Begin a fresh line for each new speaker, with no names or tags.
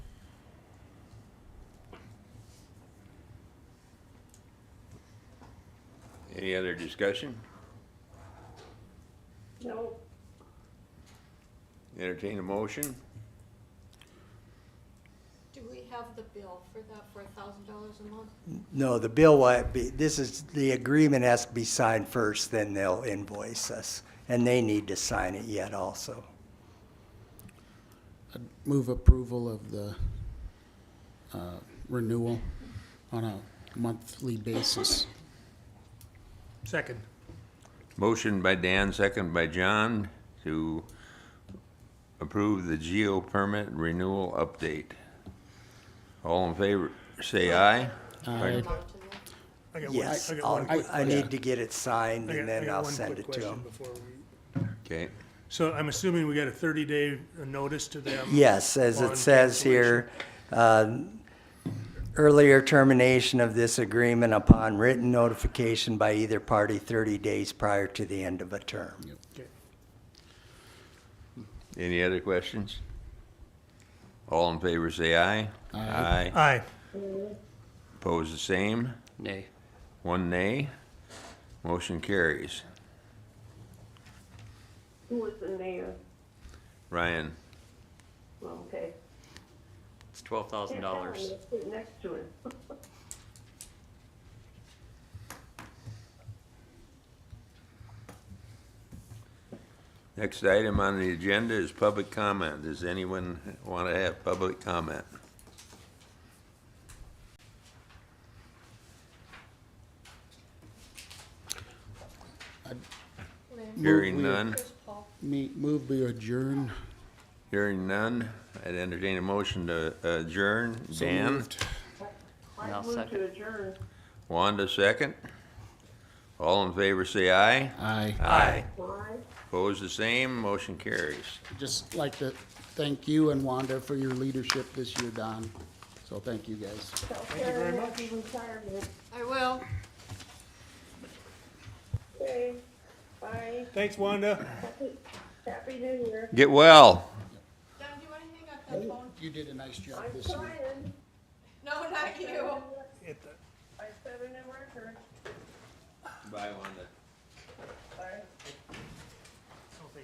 Any other discussion?
No,
Entertain a motion?
Do we have the bill for that, for a thousand dollars a month?
No, the bill will be, this is, the agreement has to be signed first, then they'll invoice us. And they need to sign it yet also.
I'd Move approval of the uh, renewal on a monthly basis.
Second.
Motion by Dan, second by John to approve the geo permit renewal update. All in favor, say aye.
Aye.
Amount in there?
I got one-
Yes,
I got one
I'll-
quick
I
question.
need to get it signed
I got-
and
I
then
got
I'll
one
send
quick
it to
question
them.
before we-
Okay,
So I'm assuming we got a thirty day notice to them?
Yes, as
on
it says here, um, earlier termination of this agreement upon written notification by either party 30 days prior to the end of a term.
cancellation. Okay.
any other questions? All in favor, say aye. Aye.
Aye.
Opposed, the same.
Nay.
One nay. Motion carries.
who was the mayor?
Ryan,
Okay.
It's twelve thousand dollars.
Sit next to him.
next item on the agenda is public comment. Does anyone want to have public comment?
Lynn?
Hearing
Move we-
none.
Where's Paul?
Me, move we adjourn.
Hearing none, I'd entertain a motion to adjourn. Dan,
Moved.
And I'll
I move
second.
to adjourn.
Wanda second. All in favor, say aye.
Aye.
Aye.
Why?
Opposed, the same, motion carries.
Just like to thank you and Wanda for your leadership this year, Don. So thank you, guys.
Thank you very much. Retirement.
I will.
Okay, bye.
Thanks, Wanda.
Happy, happy new year.
Get well.
Don, do you wanna hang up that phone?
You did a nice job
I'm
this year.
trying.
No, not you.
Hit the-
I set a new record.
Bye, Wanda.
Bye.